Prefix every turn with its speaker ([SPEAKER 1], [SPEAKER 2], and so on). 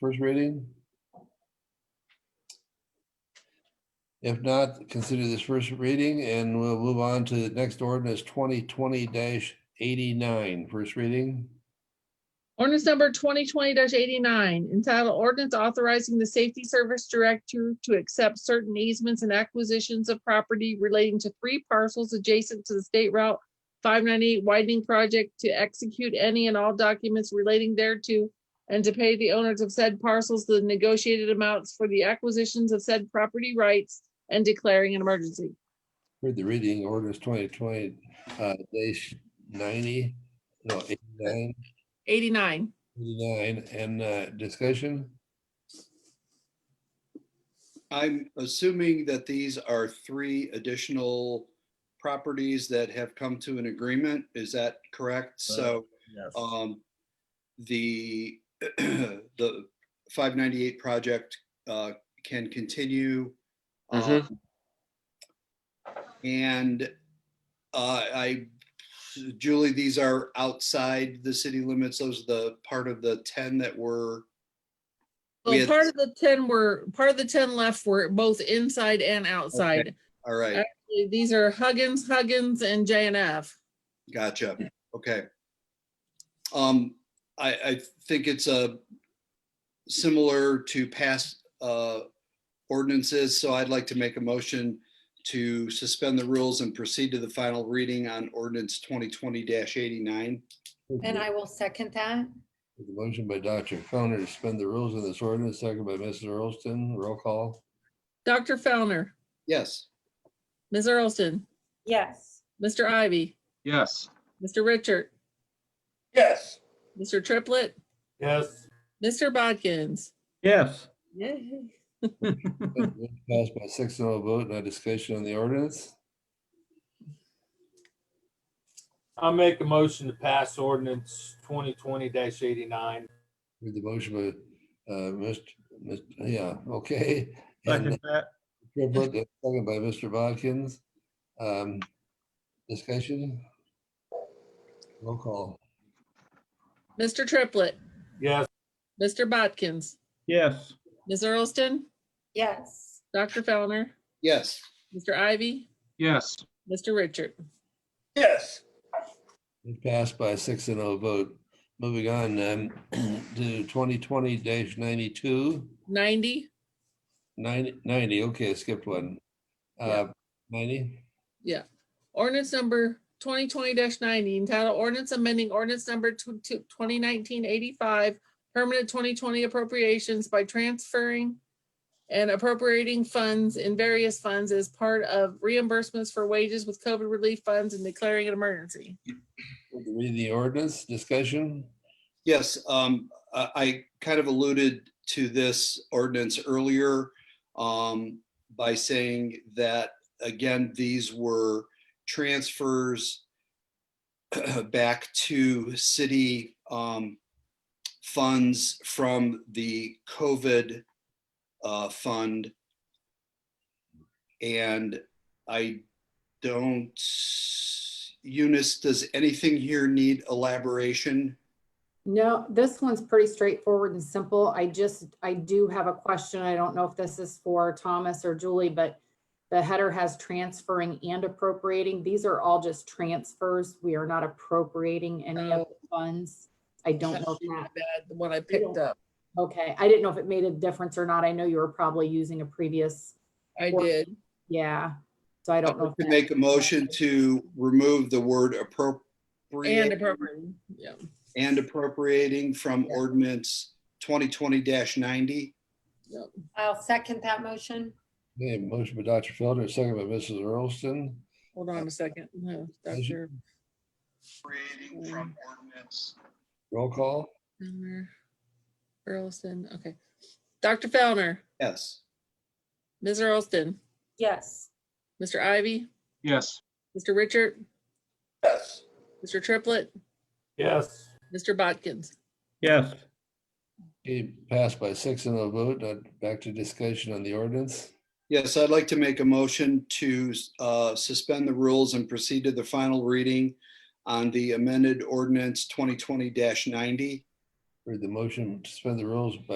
[SPEAKER 1] first reading? If not, consider this first reading and we'll move on to the next ordinance twenty twenty 89 first reading.
[SPEAKER 2] Ordinance number twenty twenty eighty-nine, entitled ordinance authorizing the safety service director to accept certain easements and acquisitions of property relating to three parcels adjacent to the state route five ninety-eight widening project to execute any and all documents relating thereto and to pay the owners of said parcels the negotiated amounts for the acquisitions of said property rights and declaring an emergency.
[SPEAKER 1] Heard the reading ordinance twenty twenty uh dash ninety, no, 89
[SPEAKER 2] Eighty-nine.
[SPEAKER 1] 89, and uh discussion?
[SPEAKER 3] I'm assuming that these are three additional properties that have come to an agreement. Is that correct? So
[SPEAKER 4] Yes.
[SPEAKER 3] um, the, the 598 project uh, can continue.
[SPEAKER 5] Mhm.
[SPEAKER 3] um, And uh, I, Julie, these are outside the city limits. Those are the part of the 10 that were, We
[SPEAKER 2] Well,
[SPEAKER 3] had-
[SPEAKER 2] part of the ten were, part of the ten left were both inside and outside.
[SPEAKER 3] all right,
[SPEAKER 2] These are Huggins, Huggins, and J and F.
[SPEAKER 3] Gotcha. Okay. Um, I, I think it's a similar to past, uh, ordinances, so I'd like to make a motion to suspend the rules and proceed to the final reading on ordinance twenty twenty eighty-nine.
[SPEAKER 6] And I will second that.
[SPEAKER 1] The Motion by Dr. Founder to suspend the rules of this ordinance, second by Mrs. Earlston, roll call.
[SPEAKER 2] Dr. Fellner,
[SPEAKER 3] Yes,
[SPEAKER 2] Ms. Earlston,
[SPEAKER 6] Yes.
[SPEAKER 2] Mr. Ivy,
[SPEAKER 5] Yes.
[SPEAKER 2] Mr. Richard,
[SPEAKER 7] Yes.
[SPEAKER 2] Mr. Triplett,
[SPEAKER 7] Yes.
[SPEAKER 2] Mr. Bodkins.
[SPEAKER 4] Yes.
[SPEAKER 2] Yay.
[SPEAKER 1] Passed by six and a vote, no discussion on the ordinance.
[SPEAKER 7] I'll make a motion to pass ordinance twenty twenty eighty-nine.
[SPEAKER 1] Heard the motion by, uh, Mr., Mr. yeah, okay. And uh,
[SPEAKER 4] Second that.
[SPEAKER 1] Second by Mr. Bodkins. Um, Discussion? Roll call.
[SPEAKER 2] Mr. Triplett,
[SPEAKER 7] Yes.
[SPEAKER 2] Mr. Bodkins,
[SPEAKER 4] Yes.
[SPEAKER 2] Ms. Earlston,
[SPEAKER 6] Yes.
[SPEAKER 2] Dr. Fellner,
[SPEAKER 3] yes,
[SPEAKER 2] Mr. Ivy,
[SPEAKER 5] Yes.
[SPEAKER 2] Mr. Richard.
[SPEAKER 7] Yes.
[SPEAKER 1] It passed by six and a vote. Moving on um, to twenty twenty 92
[SPEAKER 2] Ninety,
[SPEAKER 1] 90 90, okay, I skipped one. Uh, Ninety,
[SPEAKER 2] ordinance number twenty twenty ninety, entitled ordinance amending ordinance number 2019-85, permanent twenty twenty appropriations by transferring and appropriating funds in various funds as part of reimbursements for wages with COVID relief funds and declaring an emergency.
[SPEAKER 1] read the ordinance, discussion?
[SPEAKER 3] yes. Um, I, I kind of alluded to this ordinance earlier um, by saying that, again, these were transfers back to city um, funds from the COVID uh, fund. And I don't, Eunice, does anything here need elaboration?
[SPEAKER 8] No, this one's pretty straightforward and simple. I just, I do have a question. I don't know if this is for Thomas or Julie, but the header has transferring and appropriating. These are all just transfers. We are not appropriating any of the funds. I don't know if that,
[SPEAKER 2] Bad, The one I picked up,
[SPEAKER 8] okay. I didn't know if it made a difference or not. I know you were probably using a previous,
[SPEAKER 2] I did.
[SPEAKER 8] yeah. So I
[SPEAKER 3] I
[SPEAKER 8] don't know. if
[SPEAKER 3] could
[SPEAKER 8] that-
[SPEAKER 3] make a motion to remove the word
[SPEAKER 2] And
[SPEAKER 3] appropriate
[SPEAKER 2] appropriating, yeah.
[SPEAKER 3] and appropriating from ordinance twenty twenty ninety.
[SPEAKER 6] I'll second that motion.
[SPEAKER 1] Okay, motion by Dr. Felder, second by Mrs. Earlston.
[SPEAKER 2] Hold on a second. No, Dr.
[SPEAKER 3] Appropriating
[SPEAKER 2] from
[SPEAKER 3] ordinance.
[SPEAKER 1] Roll call?
[SPEAKER 2] Fellner, Earlston, okay. Dr. Fellner,
[SPEAKER 3] Yes.
[SPEAKER 2] Ms. Earlston,
[SPEAKER 6] Yes.
[SPEAKER 2] Mr. Ivy,
[SPEAKER 5] Yes.
[SPEAKER 2] Mr. Richard,
[SPEAKER 7] Yes.
[SPEAKER 2] Mr. Triplett,
[SPEAKER 7] Yes.
[SPEAKER 2] Mr. Bodkins.
[SPEAKER 4] Yes.
[SPEAKER 1] It passed by six and a vote. Now Back to discussion on the ordinance.
[SPEAKER 3] Yes, I'd like to make a motion to uh, suspend the rules and proceed to the final reading on the amended ordinance 2020-90.
[SPEAKER 1] Heard the motion to suspend the rules by